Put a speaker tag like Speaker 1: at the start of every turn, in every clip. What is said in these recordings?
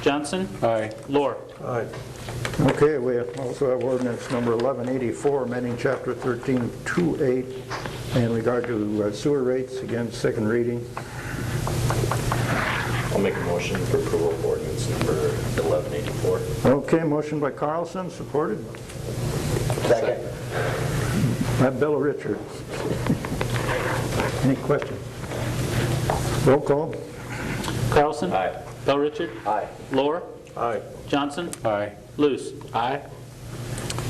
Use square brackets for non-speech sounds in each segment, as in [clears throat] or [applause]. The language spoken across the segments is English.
Speaker 1: Johnson?
Speaker 2: Aye.
Speaker 1: Lore?
Speaker 3: Aye. Okay, we also have ordinance number 1184, amending chapter 1328 in regard to uh, sewer rates, again, second reading.
Speaker 4: I'll make a motion for approval of ordinance number 1184.
Speaker 3: Okay, motion by Carlson, supported
Speaker 4: Second.
Speaker 3: by Bill Richards. [laughs] Any questions? Roll call.
Speaker 1: Carlson?
Speaker 4: Aye.
Speaker 1: Bell Richard?
Speaker 4: Aye.
Speaker 1: Lore?
Speaker 3: Aye.
Speaker 1: Johnson?
Speaker 2: Aye.
Speaker 1: Luce? Aye.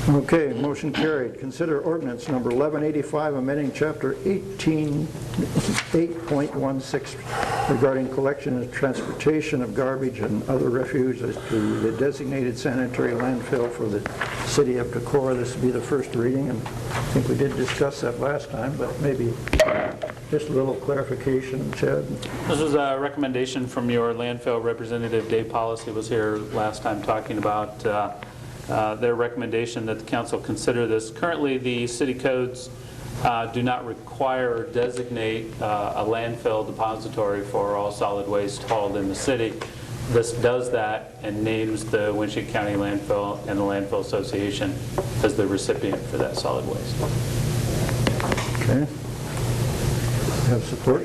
Speaker 3: Okay, motion carried. Consider ordinance number 1185, amending chapter 18, 8.16 regarding collection and transportation of garbage and other refuse as to the designated sanitary landfill for the city of Decorah. This will be the first reading, and I think we did discuss that last time, but maybe just a little clarification, Chad.
Speaker 1: This was a recommendation from your landfill representative, Dave Policy was here last time talking about uh, uh, their recommendation that the council consider this. Currently, the city codes uh, do not require or designate uh, a landfill depository for all solid waste hauled in the city. This does that and names the Winship County landfill and the landfill association as the recipient for that solid waste.
Speaker 3: Okay? Have support?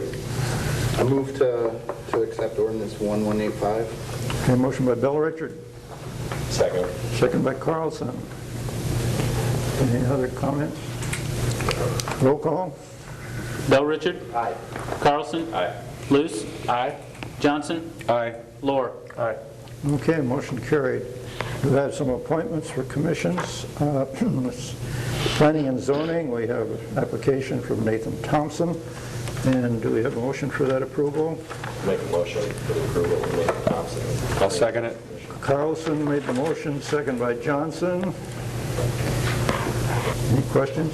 Speaker 5: I move to, to accept ordinance 1185.
Speaker 3: Okay, motion by Bill Richard.
Speaker 4: Second.
Speaker 3: Second by Carlson. Any other comments? Roll call?
Speaker 1: Bell Richard?
Speaker 4: Aye.
Speaker 1: Carlson?
Speaker 4: Aye.
Speaker 1: Luce? Aye. Johnson?
Speaker 2: Aye.
Speaker 1: Lore?
Speaker 2: Aye.
Speaker 3: Okay, motion carried. We have some appointments for commissions. Uh, [clears throat] Planning and zoning, we have an application from Nathan Thompson, and do we have a motion for that approval?
Speaker 4: Make a motion for the approval of Nathan Thompson.
Speaker 2: I'll second it.
Speaker 3: Carlson made the motion, second by Johnson. Any questions?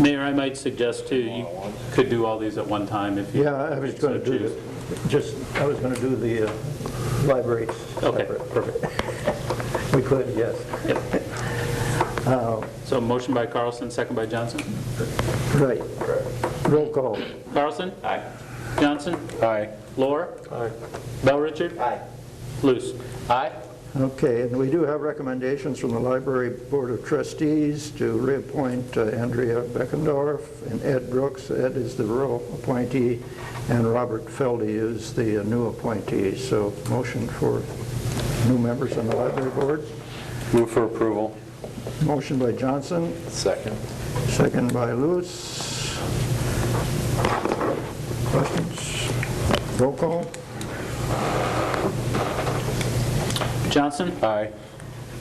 Speaker 1: Mayor, I might suggest too, you could do all these at one time if you.
Speaker 3: Yeah, I was going to do,
Speaker 1: choose.
Speaker 3: the- just, I was going to do the uh, libraries
Speaker 1: Okay,
Speaker 3: separate.
Speaker 1: perfect.
Speaker 3: We could, yes.
Speaker 1: So motion by Carlson, second by Johnson.
Speaker 3: Right. Roll call.
Speaker 1: Carlson?
Speaker 4: Aye.
Speaker 1: Johnson?
Speaker 2: Aye.
Speaker 1: Lore? Aye. Bell Richard?
Speaker 4: Aye.
Speaker 1: Luce? Aye.
Speaker 3: Okay, and we do have recommendations from the Library Board of Trustees to reappoint uh, Andrea Beckendorf and Ed Brooks. Ed is the rural appointee, and Robert Feldy is the uh, new appointee. So motion for new members on the Library Board.
Speaker 2: Move for approval.
Speaker 3: Motion by Johnson,
Speaker 4: Second.
Speaker 3: second by Lewis. Questions? Roll call?
Speaker 1: Johnson?
Speaker 2: Aye.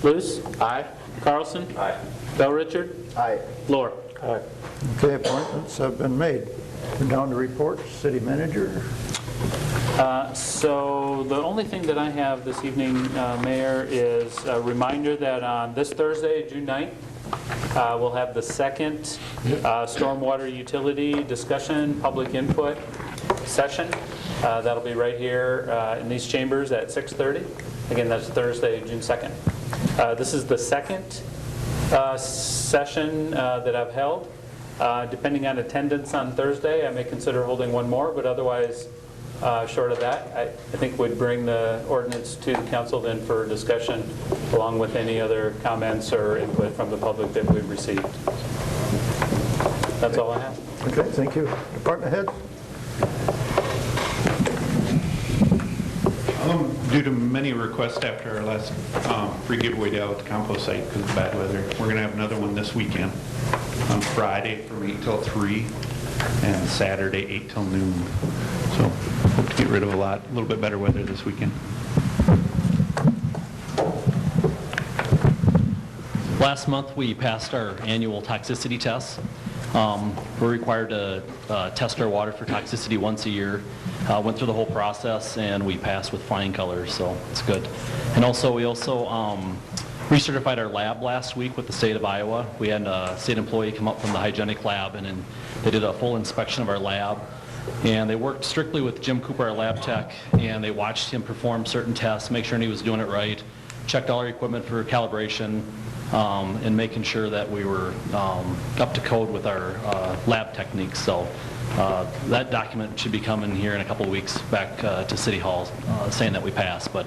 Speaker 1: Luce? Aye. Carlson?
Speaker 4: Aye.
Speaker 1: Bell Richard?
Speaker 5: Aye.
Speaker 1: Lore?
Speaker 3: Okay, appointments have been made. We're down to reports, city manager.
Speaker 1: Uh, So the only thing that I have this evening, uh, Mayor, is a reminder that on this Thursday, June 9th, uh, we'll have the second uh, stormwater utility discussion, public input session. Uh, That'll be right here uh, in these chambers at 6:30. Again, that's Thursday, June 2nd. Uh, This is the second uh, session uh, that I've held. Uh, Depending on attendance on Thursday, I may consider holding one more, but otherwise, uh, Short of that, I I think we'd bring the ordinance to the council then for discussion, along with any other comments or input from the public that we've received. That's all I have.
Speaker 3: Okay, thank you. Department head?
Speaker 6: Um, Due to many requests after our last um, free giveaway day out at the compost site because of the bad weather, we're going to have another one this weekend on Friday from 8 till 3 and Saturday 8 till noon. So hope to get rid of a lot, a little bit better weather this weekend.
Speaker 7: Last month, we passed our annual toxicity tests. Um, We're required to uh, test our water for toxicity once a year. Uh, Went through the whole process, and we passed with flying colors, so it's good. And also, we also um, recertified our lab last week with the state of Iowa. We had a state employee come up from the hygienic lab, and then they did a full inspection of our lab. And they worked strictly with Jim Cooper, our lab tech, and they watched him perform certain tests, make sure he was doing it right, checked all our equipment for calibration, um, and making sure that we were um, up to code with our uh, lab techniques. So uh, that document should be coming here in a couple of weeks back uh, to City Hall, uh, saying that we passed. But